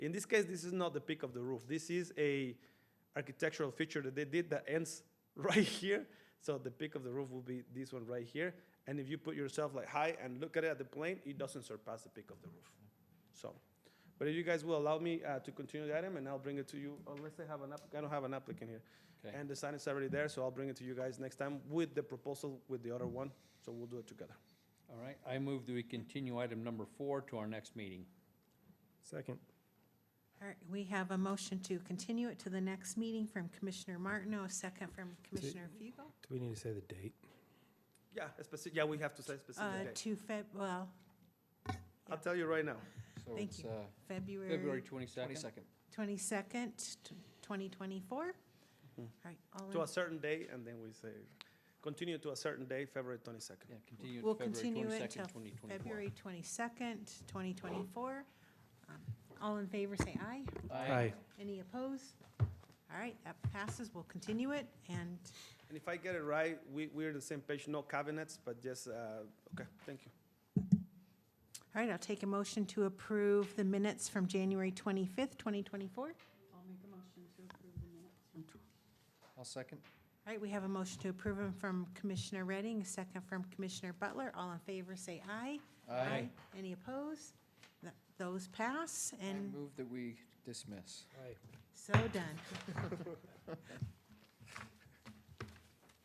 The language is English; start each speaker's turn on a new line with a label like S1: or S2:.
S1: In this case, this is not the peak of the roof. This is a architectural feature that they did that ends right here. So the peak of the roof will be this one right here. And if you put yourself like high and look at it at the plane, it doesn't surpass the peak of the roof. So, but if you guys will allow me uh, to continue the item, and I'll bring it to you, unless I have an app, I don't have an applicant here.
S2: Okay.
S1: And the sign is already there, so I'll bring it to you guys next time with the proposal with the other one. So we'll do it together.
S2: All right, I move that we continue item number four to our next meeting.
S3: Second.
S4: All right, we have a motion to continue it to the next meeting from Commissioner Martineau, a second from Commissioner Fugel.
S3: Do we need to say the date?
S1: Yeah, specific, yeah, we have to say
S4: Uh,
S1: specific date.
S4: to Feb, well,
S1: I'll tell you right now.
S2: So
S4: Thank
S2: it's,
S4: you.
S2: uh, February
S4: February
S2: twenty-second?
S4: twenty-second, twenty twenty-four. All right, all in
S1: To a certain day, and then we say, continue to a certain day, February twenty-second.
S2: Yeah, continue
S4: We'll
S2: to February
S4: continue it till
S2: twenty-second, twenty twenty-four.
S4: February 22nd, 2024. Um, All in favor, say aye. Any opposed? All right, that passes. We'll continue it, and
S1: And if I get it right, we, we're the same page, no cabinets, but just, uh, okay, thank you.
S4: All right, I'll take a motion to approve the minutes from January 25th, 2024.
S2: I'll
S4: All
S2: second.
S4: right, we have a motion to approve them from Commissioner Redding, a second from Commissioner Butler. All in favor, say aye. Any opposed? Th- Those pass,
S2: I
S4: and
S2: move that we dismiss.
S3: Aye.
S4: so done.